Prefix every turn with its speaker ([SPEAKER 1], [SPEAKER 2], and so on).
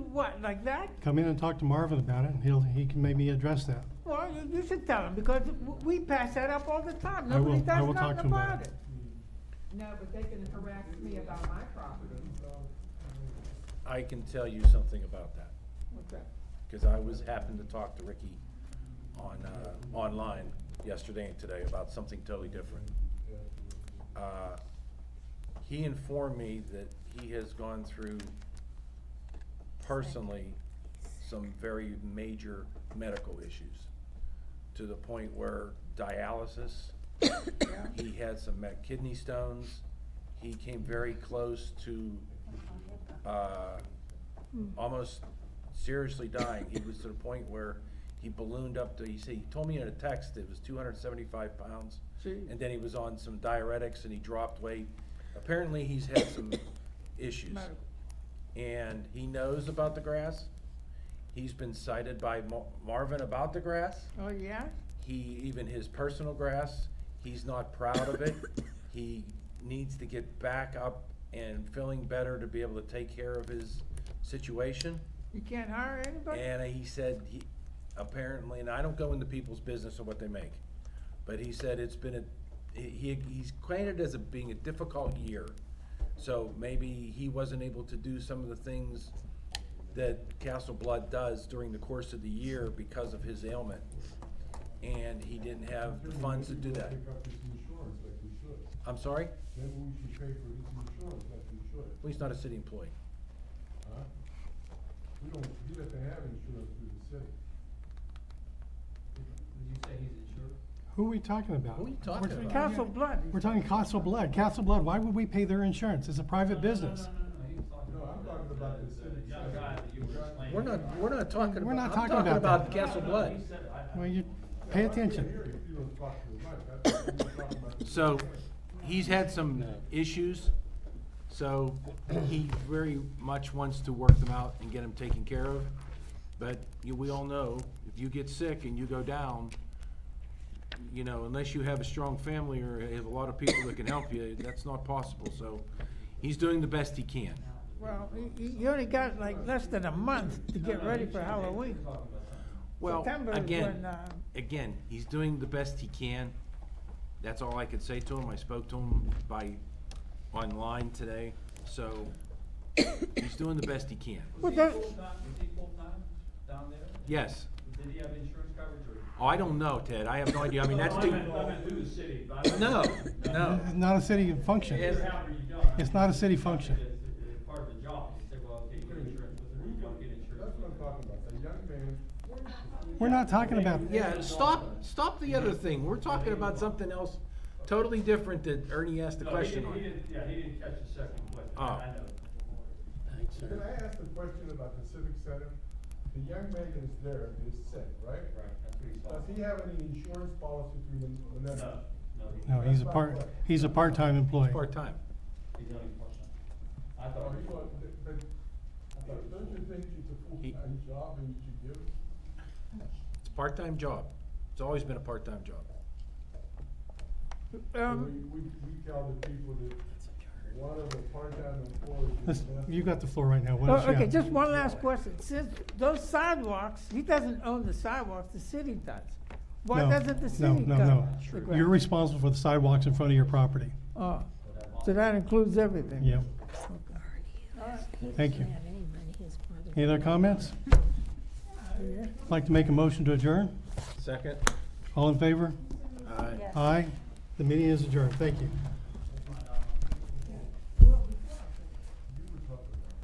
[SPEAKER 1] what, like that?
[SPEAKER 2] Come in and talk to Marvin about it, and he'll, he can maybe address that.
[SPEAKER 1] Well, you- you should tell him, because w- we pass that up all the time.
[SPEAKER 2] I
[SPEAKER 1] Nobody
[SPEAKER 2] will- I
[SPEAKER 1] does
[SPEAKER 2] will talk
[SPEAKER 1] nothing
[SPEAKER 2] to him about
[SPEAKER 1] about
[SPEAKER 2] it.
[SPEAKER 1] it.
[SPEAKER 3] Mm. No, but they can harass me about my property,
[SPEAKER 4] I can tell you something about that,
[SPEAKER 3] what's that?
[SPEAKER 4] because I was, happened to talk to Ricky on, uh, online yesterday and today about something totally different. Uh, He informed me that he has gone through personally some very major medical issues, to the point where dialysis, he had some met kidney stones, he came very close to uh,
[SPEAKER 1] Hmm.
[SPEAKER 4] almost seriously dying. He was to the point where he ballooned up to, he said, he told me in a text it was two hundred and seventy-five pounds.
[SPEAKER 1] Gee.
[SPEAKER 4] And then he was on some diuretics and he dropped weight. Apparently, he's had some issues.
[SPEAKER 1] Medical.
[SPEAKER 4] And he knows about the grass. He's been cited by Mar- Marvin about the grass
[SPEAKER 1] Oh, yeah?
[SPEAKER 4] he, even his personal grass, he's not proud of it. He needs to get back up and feeling better to be able to take care of his situation.
[SPEAKER 1] You can't hire anybody?
[SPEAKER 4] And he said, he, apparently, and I don't go into people's business or what they make, but he said it's been a, he, he's claimed it as a, being a difficult year. So maybe he wasn't able to do some of the things that Castle Blood does during the course of the year because of his ailment. And he didn't have the funds to do that.
[SPEAKER 5] Pick up his insurance like we should.
[SPEAKER 4] I'm sorry?
[SPEAKER 5] Maybe we should pay for his insurance like we should,
[SPEAKER 4] Well, he's not a city employee.
[SPEAKER 5] huh? We don't, he doesn't have insurance through the city.
[SPEAKER 6] Did you say he's insured?
[SPEAKER 2] Who are we talking about?
[SPEAKER 4] Who are you talking
[SPEAKER 2] We're-
[SPEAKER 4] about?
[SPEAKER 1] Castle Blood.
[SPEAKER 2] We're talking Castle Blood. Castle Blood, why would we pay their insurance? It's a private business.
[SPEAKER 6] No, no, no, no, he was talking
[SPEAKER 5] No,
[SPEAKER 6] about.
[SPEAKER 5] I'm
[SPEAKER 6] the-
[SPEAKER 5] talking about the city
[SPEAKER 6] Young
[SPEAKER 5] side.
[SPEAKER 6] guy that you were explaining.
[SPEAKER 4] We're not, we're not talking about,
[SPEAKER 2] We're not
[SPEAKER 4] I'm
[SPEAKER 2] talking
[SPEAKER 4] talking
[SPEAKER 2] about that.
[SPEAKER 4] about Castle Blood.
[SPEAKER 6] He said, I- I-
[SPEAKER 2] Well, you, pay
[SPEAKER 5] Yeah, I couldn't hear
[SPEAKER 2] attention.
[SPEAKER 5] you if you don't talk too much. I thought you were talking about the
[SPEAKER 4] So,
[SPEAKER 5] insurance.
[SPEAKER 4] he's had some issues, so he very much wants to work them out and get them taken care of. But you, we all know, if you get sick and you go down, you know, unless you have a strong family or have a lot of people that can help you, that's not possible, so he's doing the best he can.
[SPEAKER 1] Well, you- you you only got like less than a month to get ready for Halloween.
[SPEAKER 4] Well,
[SPEAKER 1] September is when,
[SPEAKER 4] again,
[SPEAKER 1] uh,
[SPEAKER 4] again, he's doing the best he can. That's all I could say to him. I spoke to him by, online today, so he's doing the best he can.
[SPEAKER 1] Well,
[SPEAKER 6] Was he
[SPEAKER 1] that-
[SPEAKER 6] full-time, was he full-time down there?
[SPEAKER 4] Yes.
[SPEAKER 6] Did he have insurance coverage or?
[SPEAKER 4] Oh, I don't know, Ted. I have no idea. I mean, that's
[SPEAKER 6] No, I meant, I
[SPEAKER 4] the,
[SPEAKER 6] meant through the city. but I
[SPEAKER 4] no,
[SPEAKER 6] meant-
[SPEAKER 4] no.
[SPEAKER 2] It's not a city function.
[SPEAKER 6] Either how or you don't. I
[SPEAKER 2] It's
[SPEAKER 6] mean,
[SPEAKER 2] not a city function.
[SPEAKER 6] It's, it's part of the job. You say, well, okay, you get insurance with it, or you don't get insurance.
[SPEAKER 5] That's what
[SPEAKER 6] with
[SPEAKER 5] I'm
[SPEAKER 6] it.
[SPEAKER 5] talking about, the young man,
[SPEAKER 2] We're not talking about,
[SPEAKER 4] yeah, stop, stop the other thing. We're talking about something else totally different that Ernie asked the
[SPEAKER 6] No, he
[SPEAKER 4] question
[SPEAKER 6] didn't-
[SPEAKER 4] on.
[SPEAKER 6] he didn't- Yeah, he didn't catch the second question.
[SPEAKER 4] Oh.
[SPEAKER 6] I know.
[SPEAKER 5] can I ask a question about the civic center? The young man is there, is sick, right?
[SPEAKER 6] Right, that's what he's
[SPEAKER 5] Does
[SPEAKER 6] talking
[SPEAKER 5] he have any insurance policy through the, the
[SPEAKER 6] about.
[SPEAKER 5] net?
[SPEAKER 6] No, no, he-
[SPEAKER 2] no, he's a part, he's a part-time employee.
[SPEAKER 4] Part-time.
[SPEAKER 6] he's only part-time. I
[SPEAKER 5] Oh,
[SPEAKER 6] thought.
[SPEAKER 5] he was, but, but don't you think it's a
[SPEAKER 4] He-
[SPEAKER 5] full-time job and you should give?
[SPEAKER 4] It's a part-time job. It's always been a part-time job.
[SPEAKER 1] um,
[SPEAKER 5] We, we, we tell the people that one of the part-time employees is
[SPEAKER 2] Listen,
[SPEAKER 5] less.
[SPEAKER 2] You got the floor right now. What
[SPEAKER 1] well,
[SPEAKER 2] else you
[SPEAKER 1] Oh, okay,
[SPEAKER 2] got?
[SPEAKER 1] just one last question. Since those sidewalks, he doesn't own the sidewalks, the city does. Why
[SPEAKER 2] No,
[SPEAKER 1] doesn't the
[SPEAKER 2] no,
[SPEAKER 1] city
[SPEAKER 2] no,
[SPEAKER 1] go?
[SPEAKER 2] no. You're responsible for the sidewalks in front of your property.
[SPEAKER 1] Oh, so that includes everything?
[SPEAKER 2] Yep. Thank you. Any other comments?
[SPEAKER 1] Oh,
[SPEAKER 2] Like to make a motion to adjourn?
[SPEAKER 4] Second?
[SPEAKER 2] All in favor?
[SPEAKER 4] Aye.
[SPEAKER 2] Aye. The meeting is adjourned. Thank you.